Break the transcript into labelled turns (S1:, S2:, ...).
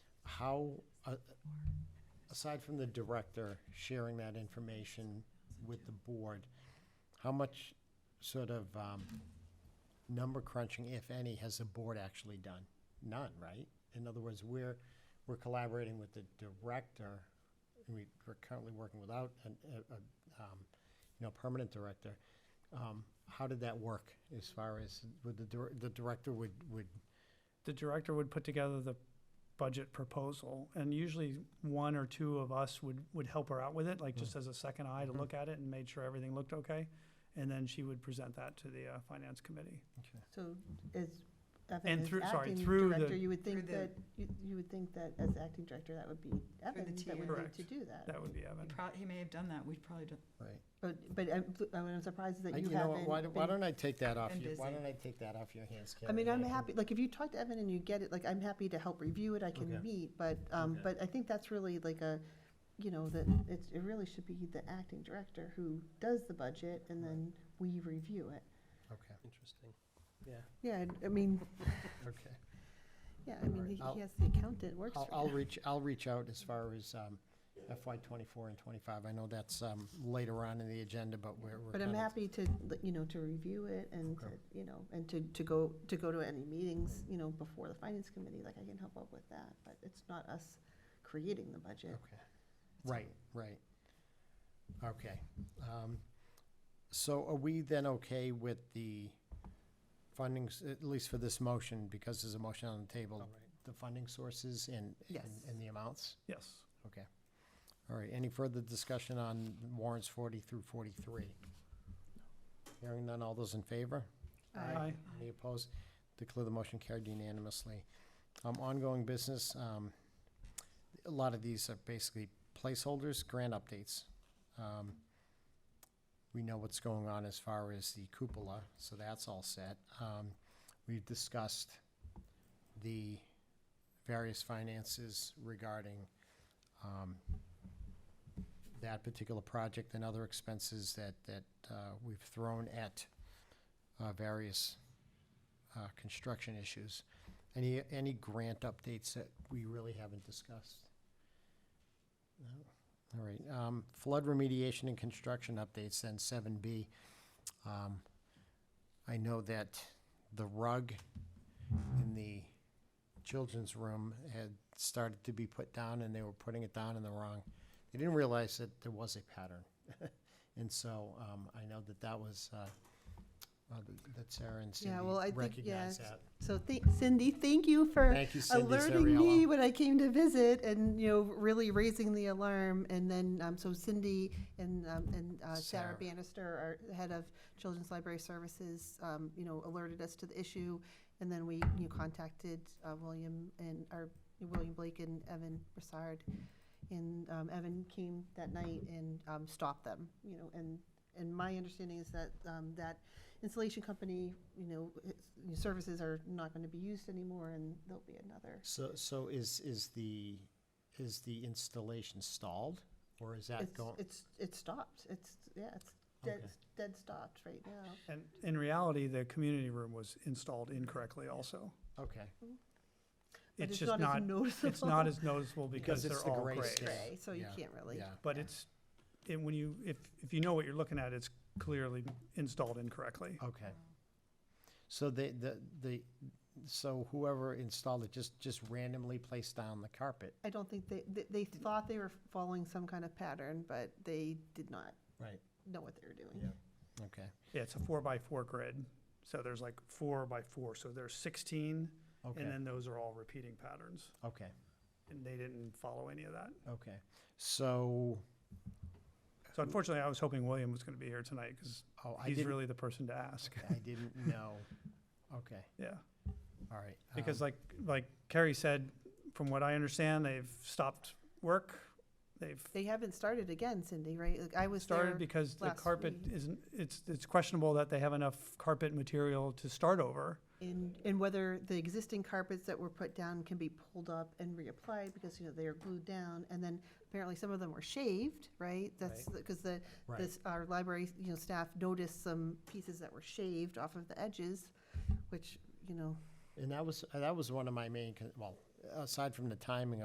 S1: how, uh, aside from the director sharing that information with the board, how much sort of um, number crunching, if any, has the board actually done? None, right? In other words, we're, we're collaborating with the director, and we- we're currently working without an- a, a, um, you know, permanent director. Um, How did that work as far as, would the, dir- the director would, would
S2: the director would put together the budget proposal, and usually one or two of us would, would help her out with it, like just as a second eye to
S1: Mhm.
S2: look at it and made sure everything looked okay. And then she would present that to the uh, finance committee.
S3: So as Evan
S2: And
S3: is
S2: through- sorry,
S3: acting
S2: through the-
S3: director, you would
S4: Through
S3: think
S4: the-
S3: that, you you would think that as acting director, that would be Evan that would need
S2: Correct.
S3: to do that.
S2: That would be Evan.
S4: Pro- he may have done that, we probably don't.
S1: Right.
S3: But, but I'm, I mean, I'm surprised
S1: I-
S3: that
S1: You
S3: you
S1: know what,
S3: haven't
S1: why, do- why
S3: been-
S1: don't I take that off
S4: been
S1: you, why
S4: busy.
S1: don't I take that off your hands, Karen?
S3: I mean, I'm
S1: can-
S3: happy, like, if you talk to Evan and you get it, like, I'm happy to help review it, I
S1: Okay.
S3: can meet, but, um,
S1: Okay.
S3: but I think that's really like a, you know, that it's, it really should be the acting director who does the budget and
S1: Right.
S3: then we review it.
S1: Okay,
S5: Interesting.
S3: Yeah, and- I mean,
S1: okay.
S3: yeah, I mean,
S1: Alright,
S3: he
S1: I'll-
S3: he has the accountant works
S1: I'll,
S3: for
S1: I'll
S3: him.
S1: reach, I'll reach out as far as um, FY twenty-four and twenty-five. I know that's um, later on in the agenda, but we're, we're
S3: But I'm
S1: kinda-
S3: happy to, like, you know, to review it and,
S1: Okay.
S3: to, you know, and to, to go, to go to any meetings, you know, before the finance committee, like, I can help out with that, but it's not us creating the budget.
S1: Okay, right, right. Okay. um, So are we then okay with the fundings, at least for this motion, because there's a motion on the table,
S5: All right.
S1: the funding sources and, and-
S3: Yes.
S1: and the amounts?
S2: Yes.
S1: Okay. All right, any further discussion on warrants forty through forty-three? Hearing none, all those in favor?
S2: Aye.
S1: Any opposed? Declare the motion carried unanimously. Um, ongoing business, um, a lot of these are basically placeholders, grant updates. Um, we know what's going on as far as the cupola, so that's all set. Um, we've discussed the various finances regarding, um, that particular project and other expenses that, that, uh, we've thrown at, uh, various uh, construction issues. Any, any grant updates that we really haven't discussed? No? All right, um, flood remediation and construction updates, then seven B. Um, I know that the rug in the children's room had started to be put down, and they were putting it down in the wrong. They didn't realize that there was a pattern. And so, um, I know that that was, uh, uh, that Sarah and Cindy
S3: Yeah, well, I think,
S1: recognized
S3: yeah,
S1: that.
S3: So thi- Cindy, thank you for
S1: Thank you, Cindy
S3: alerting me
S1: Zariello.
S3: when I came to visit and, you know, really raising the alarm. And then, um, so Cindy and, um, and uh,
S1: Sarah.
S3: Sarah Bannister, our head of Children's Library Services, um, you know, alerted us to the issue. And then we, you know, contacted, uh, William and, our William Blake and Evan Broussard. And, um, Evan came that night and, um, stopped them, you know, and, and my understanding is that, um, that installation company, you know, its services are not going to be used anymore, and there'll be another.
S1: So, so is, is the, is the installation stalled, or is that
S3: It's,
S1: going?
S3: it's, it's stopped. It's, yeah, it's dead,
S1: Okay.
S3: dead stopped right now.
S2: And in reality, the community room was installed incorrectly also.
S1: Okay,
S3: But
S2: It's just not,
S3: as noticeable.
S2: it's not as noticeable because
S1: Because it's
S2: they're
S1: the
S2: all
S1: gray
S2: gray.
S1: scale.
S3: Gray, so you
S1: Yeah,
S3: can't really.
S1: yeah.
S2: But it's, and when you, if, if you know what you're looking at, it's clearly installed incorrectly.
S1: Okay. So they, the, the, so whoever installed it just, just randomly placed down the carpet?
S3: I don't think they, they, they thought they were following some kind of pattern, but they did not
S1: Right.
S3: know what they were doing.
S1: Yeah. Okay,
S2: Yeah, it's a four by four grid, so there's like four by four, so there's sixteen,
S1: okay,
S2: and then those are all repeating patterns,
S1: okay,
S2: and they didn't follow any of that.
S1: okay. So,
S2: So unfortunately, I was hoping William was gonna be here tonight, because
S1: oh, Mm. I
S2: he's
S1: didn't,
S2: really the person to ask,
S1: I didn't know. Okay,
S2: yeah.
S1: all right.
S2: Because
S1: um,
S2: like, like Carrie said, from what I understand, they've stopped work, they've
S3: They haven't started again, Cindy, right? Like, I was there.
S2: started because the
S3: last
S2: carpet
S3: week.
S2: isn't, it's, it's questionable that they have enough carpet material to start over.
S3: And, and whether the existing carpets that were put down can be pulled up and reapplied, because, you know, they are glued down, and then apparently some of them were shaved, right? That's, because the,
S1: Right.
S3: this, our library, you know, staff noticed some pieces that were shaved off of the edges, which, you know,
S1: And that was, that was one of my main, con- well, aside from the timing